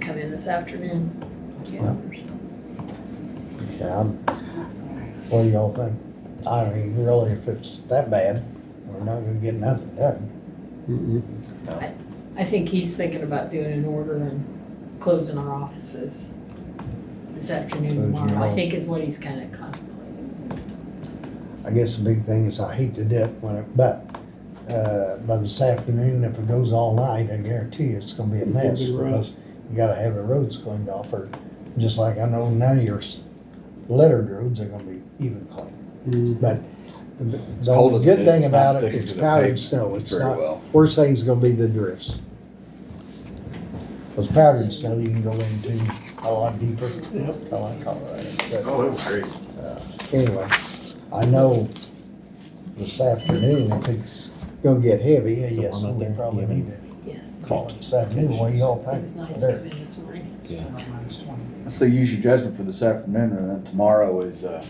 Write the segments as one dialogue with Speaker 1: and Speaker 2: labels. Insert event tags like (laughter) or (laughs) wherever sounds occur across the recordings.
Speaker 1: come in this afternoon. Yeah, there's some-
Speaker 2: Yeah, I'm- what do y'all think? I mean, really, if it's that bad, we're not gonna get nothing done.
Speaker 3: Mm-mm.
Speaker 1: I think he's thinking about doing an order and closing our offices this afternoon
Speaker 2: Closing your
Speaker 1: tomorrow, I
Speaker 2: office.
Speaker 1: think is what he's kind of contemplating.
Speaker 2: I guess the big thing is I hate to dip when it, but, uh, by this afternoon, if it goes all night, I guarantee you it's gonna be a
Speaker 3: It'll be
Speaker 2: mess.
Speaker 3: rough.
Speaker 2: Because you gotta have the roads cleaned off or, just like I know none of your s- littered roads are gonna be even clean.
Speaker 3: Mm.
Speaker 2: But the
Speaker 4: cold
Speaker 2: the
Speaker 4: as it
Speaker 2: good
Speaker 4: is,
Speaker 2: thing
Speaker 4: it's not
Speaker 2: about it,
Speaker 4: sticking
Speaker 2: it's
Speaker 4: to the
Speaker 2: powdered
Speaker 4: pavement
Speaker 2: snow, it's
Speaker 4: very well.
Speaker 2: not, worst thing's gonna be the drifts. Cause powdered snow, you can go into a lot deeper, kinda like Colorado.
Speaker 5: Oh, it was great.
Speaker 2: But, uh, Anyway, I know this afternoon, if it's gonna get heavy, uh, yes, we probably need to
Speaker 1: Yes.
Speaker 2: call it. So, anyway, y'all
Speaker 1: It
Speaker 2: think?
Speaker 1: was nice to come in this morning.
Speaker 4: I say use your judgment for this afternoon, and then tomorrow is, uh,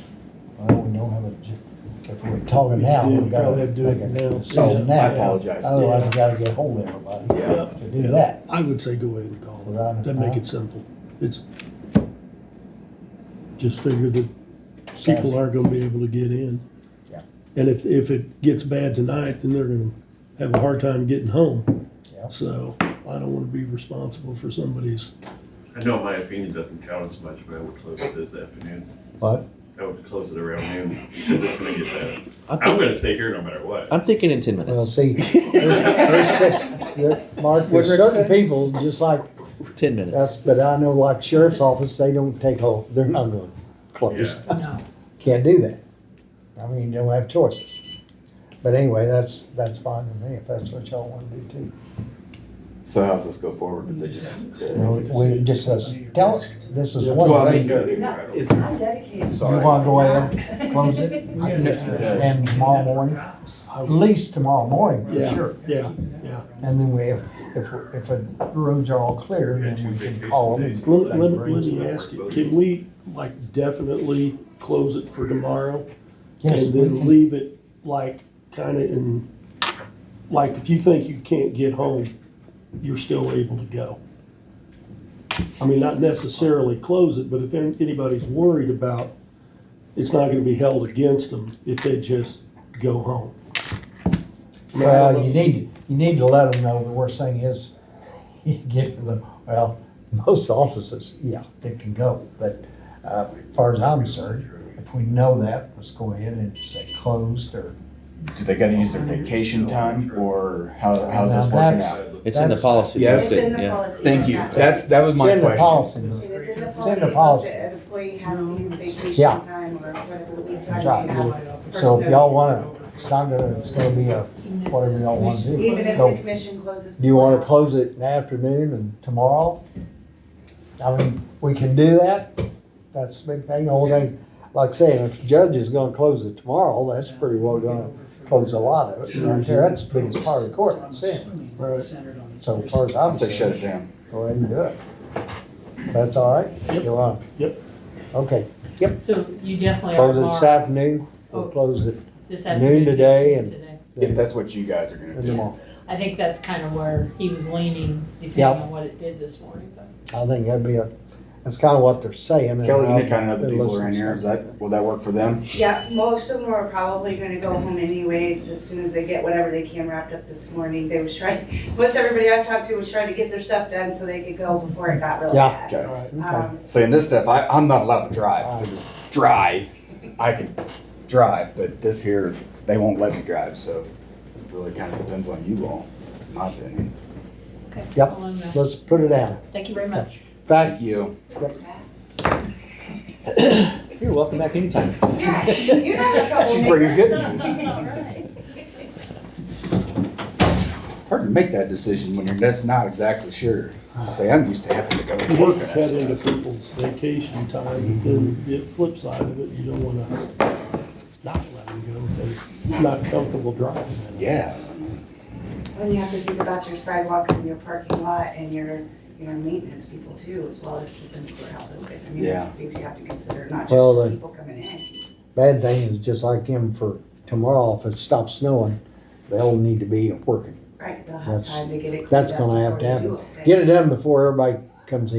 Speaker 2: Well, we don't have a, ju- if we're talking now,
Speaker 3: Yeah,
Speaker 2: we gotta
Speaker 3: probably have to do it
Speaker 2: make
Speaker 3: now.
Speaker 2: a decision
Speaker 4: Oh,
Speaker 2: now.
Speaker 4: I apologize.
Speaker 2: Otherwise, we gotta get hold of everybody
Speaker 4: Yeah.
Speaker 2: to do that.
Speaker 3: I would say go ahead and call
Speaker 2: Right, Uh-huh.
Speaker 3: it. That make
Speaker 2: huh?
Speaker 3: it simple. It's, just figure that people aren't gonna be able to get in.
Speaker 2: Yeah.
Speaker 3: And if, if it gets bad tonight, then they're gonna have a hard time getting home.
Speaker 2: Yeah.
Speaker 3: So I don't wanna be responsible for somebody's,
Speaker 5: I know my opinion doesn't count as much, but I would close it this afternoon.
Speaker 2: But
Speaker 5: I would close it around noon. (laughs) because It's gonna get bad.
Speaker 6: I'm,
Speaker 5: I'm
Speaker 6: think,
Speaker 5: gonna stay here no matter what.
Speaker 6: I'm thinking in 10 minutes.
Speaker 2: Well,
Speaker 4: (laughs)
Speaker 2: see, there's, there's, cer- there- Mark, there's certain people, just like
Speaker 6: 10 minutes.
Speaker 2: us, but I know like sheriff's office, they don't take hold, they're not going to close.
Speaker 1: No,
Speaker 2: Can't do that. I mean, you don't have choices. But anyway, that's, that's fine with me, if that's what y'all want to do too.
Speaker 4: so how's this go forward? Did they just?
Speaker 2: We just, let's- tell us, this is
Speaker 4: Well,
Speaker 2: one
Speaker 4: I mean,
Speaker 2: thing.
Speaker 4: no,
Speaker 5: It's
Speaker 4: it's-
Speaker 2: You
Speaker 4: sorry.
Speaker 2: wanna go ahead and close it? And tomorrow morning, at least tomorrow morning, for
Speaker 3: Yeah.
Speaker 2: sure.
Speaker 3: yeah, yeah.
Speaker 2: And then we have, if, if the roads are all clear, then we can call them. and
Speaker 3: Let, let, let
Speaker 2: raise-
Speaker 3: me ask you, can we like definitely close it for tomorrow?
Speaker 2: Yes,
Speaker 3: And
Speaker 2: we
Speaker 3: then
Speaker 2: can.
Speaker 3: leave it like kinda in, like if you think you can't get home, you're still able to go. I mean, not necessarily close it, but if an- anybody's worried about, it's not gonna be held against them if they just go home. I mean, I don't
Speaker 2: Well, you
Speaker 3: know.
Speaker 2: need, you need to let them know, the worst thing is, (laughs) you get to the, well, most offices, yeah, they can go, but, uh, as far as I'm concerned, if we know that, let's go ahead and say closed or.
Speaker 4: Do they gotta use their vacation time, or how, how's this
Speaker 2: Now,
Speaker 4: working
Speaker 2: that's-
Speaker 4: out?
Speaker 6: it's in the
Speaker 2: that's-
Speaker 6: policy.
Speaker 4: Yeah,
Speaker 7: It's
Speaker 4: that's
Speaker 7: in
Speaker 6: it.
Speaker 7: the
Speaker 6: Yeah.
Speaker 7: policy.
Speaker 4: Thank you.
Speaker 7: book.
Speaker 4: That's, that was
Speaker 2: It's
Speaker 4: my
Speaker 2: in the
Speaker 4: question.
Speaker 2: policy.
Speaker 7: It's in the
Speaker 2: in the
Speaker 7: policy
Speaker 2: policy.
Speaker 7: book that an employee has to use vacation
Speaker 2: Yeah.
Speaker 7: time or whatever leave
Speaker 2: That's
Speaker 7: time
Speaker 2: right.
Speaker 7: they have. for
Speaker 2: So if
Speaker 7: snow.
Speaker 2: y'all wanna, it's not gonna, it's gonna be a, whatever y'all wanna do.
Speaker 7: Even if
Speaker 2: Go.
Speaker 7: the commission closes.
Speaker 2: Do you wanna close it in the afternoon and tomorrow? I mean, we can do that, that's the big thing, the whole thing, like I say, if the judge is gonna close it tomorrow, that's pretty well gonna close a lot of it, right there, that's the biggest part of the court, I'm saying. So as far as
Speaker 4: I
Speaker 2: I'm
Speaker 4: say shut
Speaker 2: concerned,
Speaker 4: it down.
Speaker 2: go ahead and do it. That's all right? You want?
Speaker 3: Yep.
Speaker 2: Okay,
Speaker 1: so you definitely are
Speaker 2: close it
Speaker 1: tomorrow,
Speaker 2: this
Speaker 1: Oh.
Speaker 2: afternoon, we'll close it
Speaker 1: this
Speaker 2: noon
Speaker 1: afternoon.
Speaker 2: today and-
Speaker 1: today.
Speaker 4: If that's what you guys are gonna do.
Speaker 2: tomorrow.
Speaker 1: I think that's kind of where he was leaning, depending
Speaker 2: Yeah.
Speaker 1: on what it did this morning, but.
Speaker 2: I think that'd be a, that's kinda what they're saying. and
Speaker 4: Kelly, you
Speaker 2: I'll-
Speaker 4: know kind of know the people around here. Is that, will that work for them?
Speaker 7: Yeah, most of them are probably gonna go home anyways, as soon as they get whatever they can wrapped up this morning. They was trying, (laughs) most everybody I talked to was trying to get their stuff done so they could go before it got really
Speaker 2: Yeah.
Speaker 7: bad.
Speaker 4: Okay.
Speaker 2: Okay.
Speaker 7: Um,
Speaker 4: Saying this stuff, I, I'm not allowed to drive. If it was dry, I could drive, but this here, they won't let me drive, so it really kind of depends on you all, in my opinion.
Speaker 1: Okay.
Speaker 2: Yep.
Speaker 1: I'll let him know.
Speaker 2: Let's put it down.
Speaker 1: Thank you very much.
Speaker 2: In fact,
Speaker 4: Thank you.
Speaker 6: You're welcome back anytime.
Speaker 7: Yeah, (laughs) you're not a
Speaker 4: She's
Speaker 7: troublemaker.
Speaker 4: bringing good news.
Speaker 7: (laughs)
Speaker 1: All right.
Speaker 4: Hard to make that decision when you're just not exactly sure. Say, I'm used to having to go to
Speaker 3: Work
Speaker 4: work and that
Speaker 3: cut into
Speaker 4: stuff.
Speaker 3: people's vacation time, then the flip side of it, you don't wanna not let them go if they're not comfortable driving.
Speaker 4: Yeah.
Speaker 7: And you have to think about your sidewalks and your parking lot and your, your maintenance people too, as well as keeping the courthouse open. I mean, those
Speaker 4: Yeah.
Speaker 7: are things you have to consider, not
Speaker 2: Well,
Speaker 7: just
Speaker 2: the-
Speaker 7: people coming in.
Speaker 2: bad thing is just like him for tomorrow, if it stops snowing, they'll need to be working.
Speaker 7: Right, they'll have
Speaker 2: That's-
Speaker 7: time to get it cleaned
Speaker 2: That's
Speaker 7: up
Speaker 2: gonna have to
Speaker 7: before you
Speaker 2: happen.
Speaker 7: do it.
Speaker 2: Get it done before everybody comes in.